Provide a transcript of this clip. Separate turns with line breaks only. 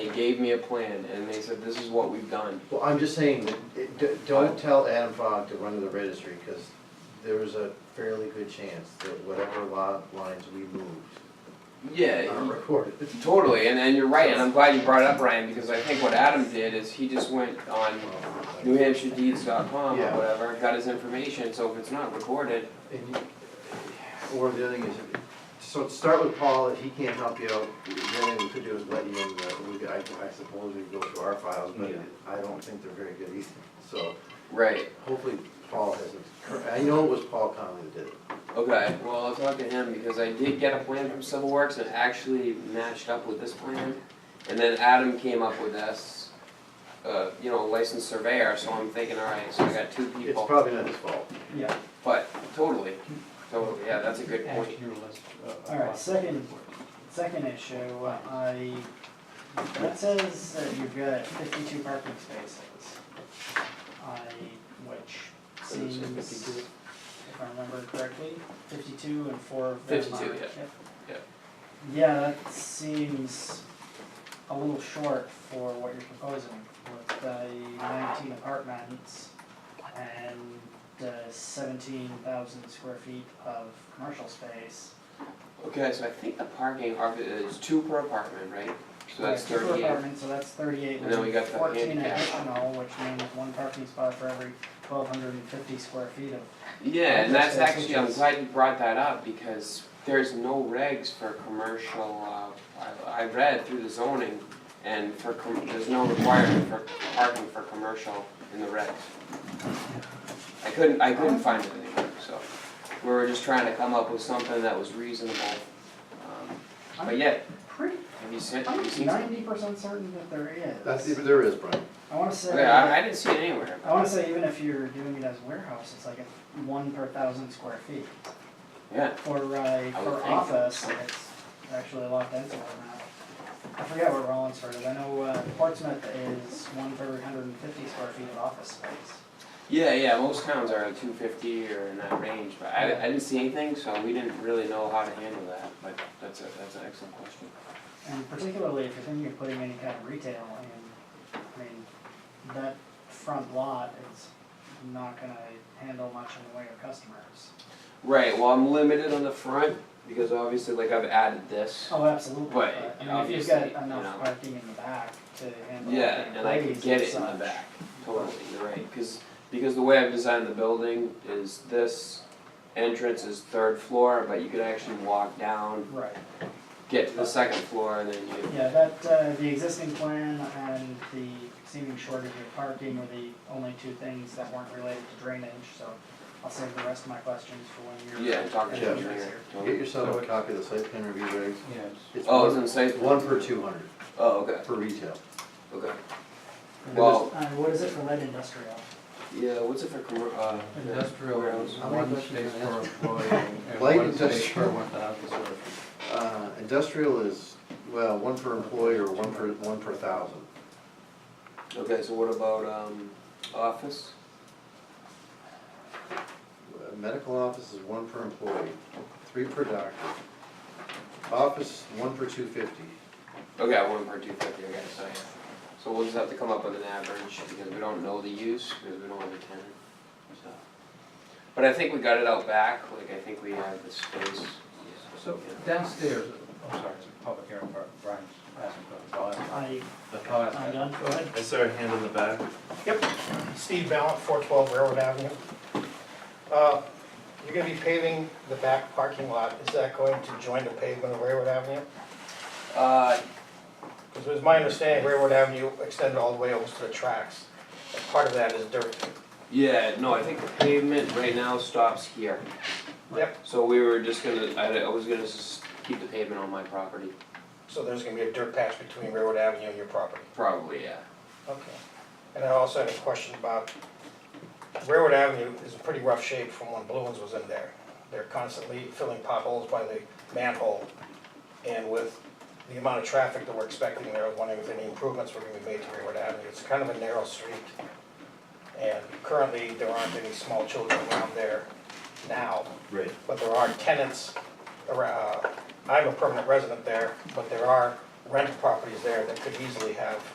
gave me a plan and they said, this is what we've done.
Well, I'm just saying, that it- d- don't tell Adam Fogg to run to the registry, because there was a fairly good chance that whatever lot lines we moved are
Yeah,
recorded.
he- Uh, totally, and, and you're right, and I'm glad you brought it up, Ryan, because I think what Adam did is he just went on
And
newhampshiredeeds.com or
Yeah.
whatever, got his information, so if it's not recorded,
you- Or the other thing is, so start with Paul, if he can't help you out, then we could do is let you in, the- we- I I suppose we could go through our files, but
Yeah.
I don't think they're very good either, so
right,
hopefully Paul hasn't, I know it was Paul Conley that did it.
okay, well, I'll talk to him, because I did get a plan from Civil Works that actually matched up with this plan. And then Adam came up with this, uh, you know, licensed surveyor, so I'm thinking, all right, so I got two people.
It's probably not his fault.
Yeah,
But, totally, totally, yeah, that's a good
add
point.
to your list.
uh,
All right, second, second issue, I, that says that you've got fifty-two parking spaces. I, which
Did it say
seems,
52?
if I remember correctly, fifty-two and four of them are.
52, yeah, yeah.
Yeah, that seems a little short for what you're proposing with the nineteen apartments and uh seventeen thousand square feet of commercial space.
Okay, so I think the parking are, is two per apartment, right? So that's
Yeah, two per
thirty-eight.
apartment, so that's thirty-eight,
And then we got the
fourteen
handicap.
additional, which means one parking spot for every twelve hundred and fifty square feet of.
Yeah, and that's
That's
actually, I'm
just-
glad you brought that up, because there's no regs for commercial, uh, I, I read through the zoning, and for, com- there's no requirement for parking for commercial in the regs. I couldn't, I couldn't find it anywhere, so, we were just trying to come up with something that was reasonable. Um, But yeah,
Pretty,
have you seen, have you
I'm
seen something?
ninety percent certain that there is.
That's, there is, Brian.
I wanna say.
Yeah, I, I didn't see it anywhere.
uh, I wanna say even if you're doing it as warehouse, it's like a one per thousand square feet.
Yeah,
For, uh,
would
for
think.
office, it's actually a lot denser than that. I forget what Rollinsford is, I know uh, Portsmouth is one per hundred and fifty square feet of office space.
yeah, yeah, most towns are like two fifty or in that range, but I, I didn't see anything, so we didn't really know how to handle that, but that's a, that's an excellent question.
And particularly if you're thinking of putting any kind of retail in, I mean, that front lot is not gonna handle much in the way of customers.
Right, well, I'm limited on the front, because obviously, like, I've added this.
Oh, absolutely, but,
But
I mean, if you've got
obviously, you know.
enough parking in the back to handle
Yeah,
the
and I could
employees
get
and
it in the
such.
back, totally, you're right, because, because the way I've designed the building is this entrance is third floor, but you could actually walk down,
Right,
get to the second floor, and then you,
yeah, that, uh, the existing plan and the seeming shortage of parking were the only two things that weren't related to drainage, so I'll save the rest of my questions for when you're.
yeah, talk to
Yeah.
the
when you're
engineer.
Get yourself a copy of the site plan review regs.
Yes.
It's
Oh,
one-
it's in site. plan?
One per two hundred,
Oh, okay,
for retail.
okay.
here.
Well-
Uh, what is it for lead industrial?
Yeah, what's it for commer- uh?
Industrial, is
How many
one
questions
space
can I
per employee and
Light
one space per
industrial.
one thousand square feet.
Uh, industrial is, well, one per employee or one per, one per thousand.
Okay, so what about, um, office?
Uh, Medical office is one per employee, three per doctor. Office, one per two fifty.
Okay, one per two fifty, I gotta say. So we'll just have to come up with an average, because we don't know the use, because we don't have a tenant, so. But I think we got it out back, like, I think we have the space.
So downstairs, I'm sorry, it's a public hearing, Bri- Brian's asking for the thought.
I,
The thought.
I'm done, go ahead.
Is there a hand in the back?
Yep, Steve Ballant, 412 Railroad Avenue. Uh, You're going to be paving the back parking lot, is that going to join the pavement of Railroad Avenue?
Uh,
Because it was my understanding Railroad Avenue extended all the way almost to the tracks, and part of that is dirt.
yeah, no, I think the pavement right now stops here.
Yep,
So we were just gonna, I, I was gonna s- keep the pavement on my property,
so there's going to be a dirt patch between Railroad Avenue and your property.
probably, yeah.
Okay. And I also had a question about Railroad Avenue is in pretty rough shape from when Blue Ones was in there. They're constantly filling potholes by the manhole. And with the amount of traffic that we're expecting there, I was wondering if any improvements were gonna be made to Railroad Avenue. It's kind of a narrow street. And currently, there aren't any small children around there now.
Right.
uh, But there are tenants around, I'm a permanent resident there, but there are rental properties there that could easily have